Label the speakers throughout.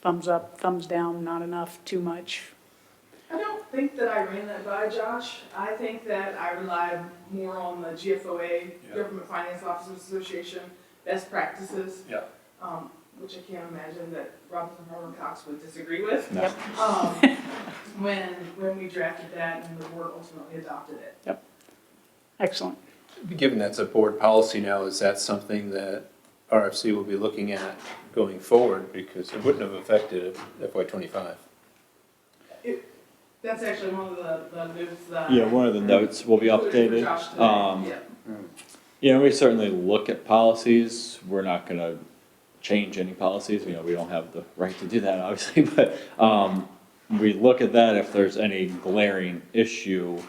Speaker 1: thumbs up, thumbs down, not enough, too much?
Speaker 2: I don't think that I ran that by Josh. I think that I relied more on the GFOA,
Speaker 3: Yeah.
Speaker 2: Government Finance Officers Association, best practices.
Speaker 3: Yeah.
Speaker 2: Um, which I can't imagine that Robinson Harmon Cox would disagree with.
Speaker 3: No.
Speaker 1: Yep.
Speaker 2: Um, when, when we drafted that and the board ultimately adopted it.
Speaker 1: Excellent.
Speaker 4: Given that's a board policy now, is that something that RFC will be looking at going forward? Because it wouldn't have affected FY twenty-five.
Speaker 2: That's actually one of the, the moves that.
Speaker 5: Yeah, one of the notes will be
Speaker 2: Josh today.
Speaker 5: updated. Um,
Speaker 2: Yeah.
Speaker 5: You know, we certainly look at policies. We're not gonna change any policies. You know, we don't have the right to do that, obviously, but, um, we look at that if there's any glaring issue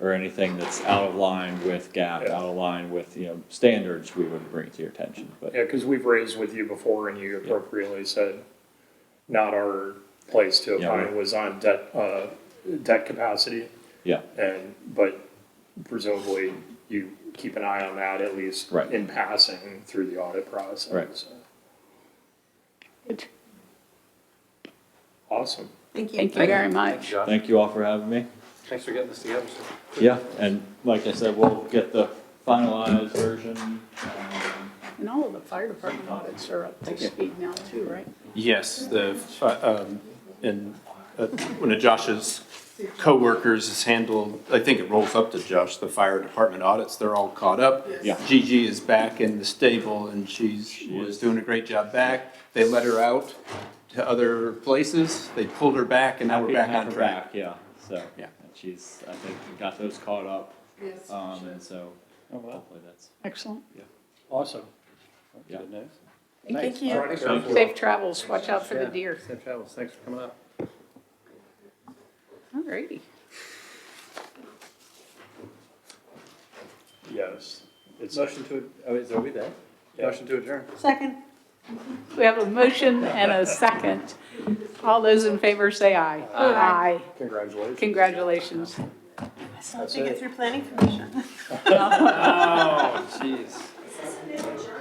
Speaker 5: or anything that's out of line with GAAP, out of line with, you know, standards, we would bring it to your attention, but.
Speaker 3: Yeah, because we've raised with you before and you appropriately said not our place to
Speaker 5: Yeah,
Speaker 3: opine
Speaker 5: right.
Speaker 3: was on debt, uh, debt capacity.
Speaker 5: Yeah.
Speaker 3: And, but presumably you keep an eye on that at least
Speaker 5: Right.
Speaker 3: in passing through the audit process.
Speaker 5: Right.
Speaker 3: so.
Speaker 1: Good.
Speaker 3: Awesome.
Speaker 6: Thank you.
Speaker 1: Thank you very much.
Speaker 5: Thank you all for having me.
Speaker 4: Thanks for getting this together, sir.
Speaker 5: Yeah, and like I said, we'll get the finalized version. um,
Speaker 1: And all of the fire department audits are up to speed now too, right?
Speaker 4: Yes, the, fi- um, and uh, one of Josh's coworkers has handled, I think it rolls up to Josh, the fire department audits, they're all caught up.
Speaker 5: Yeah.
Speaker 4: Gigi is back in the stable and she's, was doing a great job back. They let her out to other places, they pulled her back and now we're
Speaker 5: happy to
Speaker 4: back
Speaker 5: have
Speaker 4: on
Speaker 5: her
Speaker 4: track.
Speaker 5: back, Yeah, so.
Speaker 4: Yeah.
Speaker 5: and She's, I think, got those caught up,
Speaker 2: Yes.
Speaker 5: um, and so
Speaker 7: wow.
Speaker 5: hopefully that's,
Speaker 1: Excellent.
Speaker 7: Oh, Awesome.
Speaker 5: Yeah.
Speaker 7: Good news.
Speaker 6: Thank you.
Speaker 1: Safe travels. Watch out for the deer.
Speaker 7: Safe travels. Thanks for coming up.
Speaker 1: All righty.
Speaker 3: Yes. It's,
Speaker 7: Motion to, oh, is, are we there?
Speaker 3: Yeah.
Speaker 7: Motion to adjourn.
Speaker 6: Second.
Speaker 1: We have a motion and a second. All those in favor say aye. Aye.
Speaker 3: congratulations.
Speaker 1: Congratulations.
Speaker 6: That's how you get through planning commission.
Speaker 7: Oh, jeez.